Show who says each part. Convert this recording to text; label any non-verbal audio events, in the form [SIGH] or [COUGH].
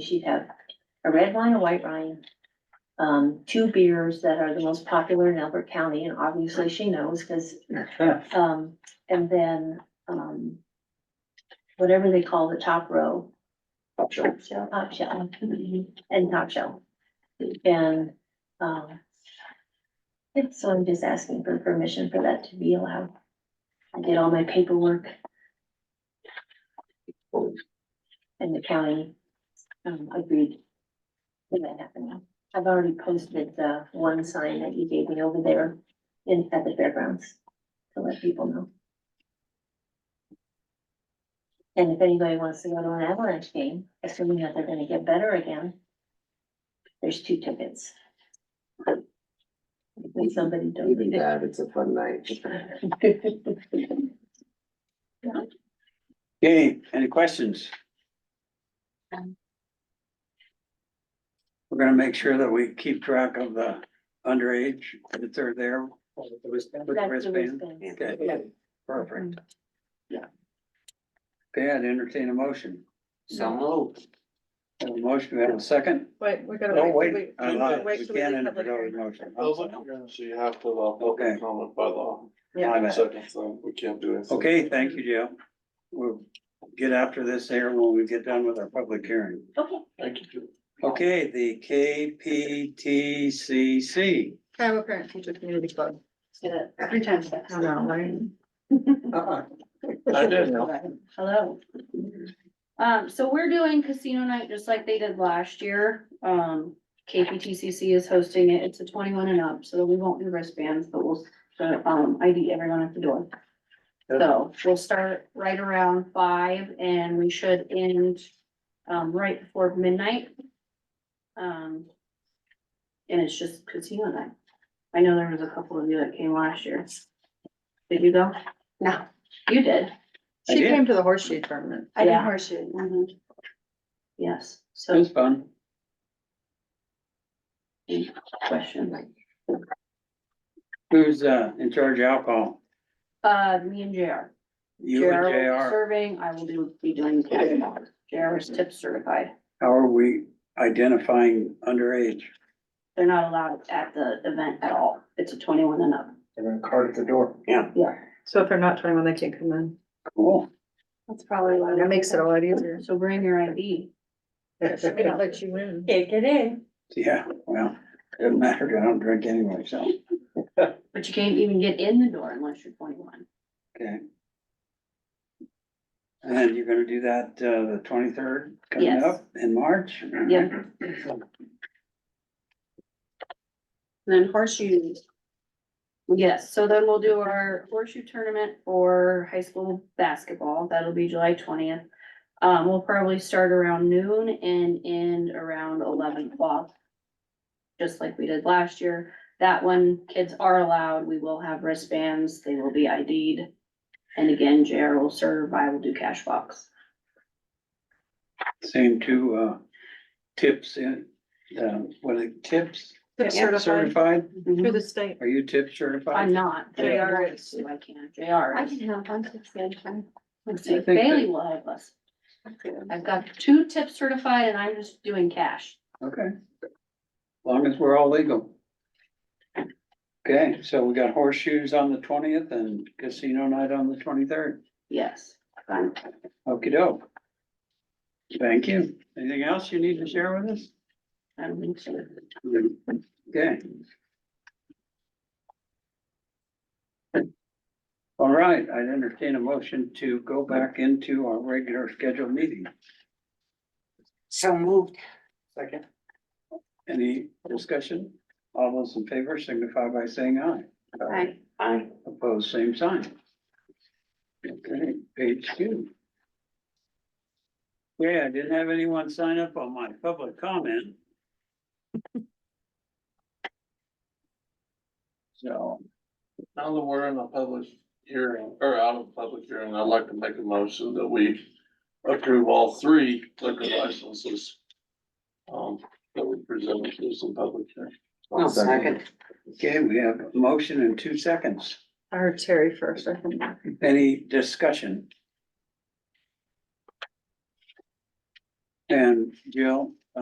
Speaker 1: she'd have a red wine, a white wine, um, two beers that are the most popular in Albert County, and obviously she knows, cause, um, and then, um, whatever they call the top row, top shelf, and top shelf. And, um, and so I'm just asking for permission for that to be allowed. I did all my paperwork. And the county, um, agreed. When that happened, I've already posted the one sign that you gave me over there in, at the fairgrounds to let people know. And if anybody wants to go to an avalanche game, assuming that they're gonna get better again, there's two tickets. If somebody
Speaker 2: Even
Speaker 1: donated.
Speaker 2: that, it's a fun night.
Speaker 1: [LAUGHS]
Speaker 3: Okay, any questions?
Speaker 4: Um.
Speaker 3: We're gonna make sure that we keep track of the underage, that they're there. with the wristband. with the
Speaker 1: That's the
Speaker 3: wristband.
Speaker 1: wristband.
Speaker 3: Okay,
Speaker 4: Mm.
Speaker 3: perfect. Yeah. Okay, I'd entertain a motion.
Speaker 2: So
Speaker 3: Have a motion, we have a second?
Speaker 4: Oh, Wait, we gotta
Speaker 3: No,
Speaker 4: wait.
Speaker 3: wait,
Speaker 4: till
Speaker 3: I lied.
Speaker 4: wait
Speaker 3: we
Speaker 4: till we
Speaker 3: can't
Speaker 4: do
Speaker 3: enter
Speaker 4: public
Speaker 3: the
Speaker 4: hearing.
Speaker 3: motion.
Speaker 5: Public hearings, "Oh, so you have to allow
Speaker 3: Okay.
Speaker 5: public comment by law.
Speaker 3: My
Speaker 4: Yeah,
Speaker 3: bad.
Speaker 5: Second, so we can't do anything.
Speaker 3: Okay, thank you, Jill. We'll get after this here when we get done with our public hearing.
Speaker 1: Okay,
Speaker 5: Thank you. Jim.
Speaker 3: Okay, the KPTCC.
Speaker 4: Kiowa Parent Teacher Community Club.
Speaker 6: Three times that.
Speaker 4: I know, right?
Speaker 2: uh,
Speaker 5: I did.
Speaker 1: hello.
Speaker 6: Um, so we're doing casino night just like they did last year. Um, KPTCC is hosting it. It's a twenty-one and up, so we won't do wristbands, but we'll, um, ID everyone at the door. So we'll start right around five and we should end, um, right before midnight. Um, and it's just casino night. I know there was a couple of you that came last year. Did you go? No. You did?
Speaker 3: I
Speaker 4: She
Speaker 3: did.
Speaker 4: came to the horseshoe tournament.
Speaker 6: I did horseshoe. uh-huh. Yes,
Speaker 3: It
Speaker 6: so
Speaker 3: was fun.
Speaker 6: question,
Speaker 3: Who's uh in charge of alcohol?
Speaker 6: uh, me and JR.
Speaker 3: You
Speaker 6: JR
Speaker 3: and
Speaker 6: will be
Speaker 3: JR,
Speaker 6: Serving, I will do, be doing alcohol. JR is tip certified.
Speaker 3: how are we identifying underage?
Speaker 6: They're not allowed at the event at all. It's a twenty-one and up.
Speaker 2: They're gonna cart at the door.
Speaker 3: Yeah.
Speaker 6: Yeah.
Speaker 4: So if they're not twenty-one, they can't come in.
Speaker 3: Cool.
Speaker 6: That's probably why.
Speaker 4: That makes it a lot easier.
Speaker 6: So bring your ID.
Speaker 4: They don't let you in.
Speaker 1: Take it in.
Speaker 3: Yeah, well, doesn't matter, I don't drink anyway, so,
Speaker 6: But you can't even get in the door unless you're twenty-one.
Speaker 3: okay. And you're gonna do that uh the twenty-third coming
Speaker 6: Yes.
Speaker 3: up in March?
Speaker 6: Yep. And then horseshoes. Yes, so then we'll do our horseshoe tournament for high school basketball. That'll be July twentieth. Um, we'll probably start around noon and end around eleven o'clock. Just like we did last year. That one, kids are allowed. We will have wristbands. They will be ID'd. And again, JR will serve. I will do cash box.
Speaker 3: Same two uh tips in, um, what are they, tips
Speaker 4: Tip certified
Speaker 3: certified?
Speaker 4: through the state.
Speaker 3: Are you tip certified?
Speaker 6: I'm not.
Speaker 4: JR
Speaker 6: JR
Speaker 4: is.
Speaker 6: is, I can't. JR
Speaker 1: I
Speaker 6: is.
Speaker 1: can have one six at a time.
Speaker 6: Let's
Speaker 3: I
Speaker 6: see,
Speaker 3: think that-
Speaker 6: Bailey will help us. I've got two tips certified and I'm just doing cash.
Speaker 3: Okay. Long as we're all legal. Okay, so we got horseshoes on the twentieth and casino night on the twenty-third.
Speaker 6: Yes. Um,
Speaker 3: Okey doke. Thank you. Anything else you need to share with us?
Speaker 6: I don't think so.
Speaker 3: Okay. All right, I'd entertain a motion to go back into our regular scheduled meeting.
Speaker 2: So moved. Second.
Speaker 3: Any discussion? All those in favor signify by saying aye.
Speaker 6: Aye.
Speaker 2: Aye.
Speaker 3: Opposed, same sign. Okay, page two. Yeah, I didn't have anyone sign up on my public comment. So,
Speaker 5: Now that we're in a public hearing, or out of public hearing, I'd like to make a motion that we approve all three liquor licenses. Um, that we presented to us in public hearing.
Speaker 2: I'll second.
Speaker 3: okay, we have a motion in two seconds.
Speaker 4: I heard Terry first, I think.
Speaker 3: Any discussion? and Jill,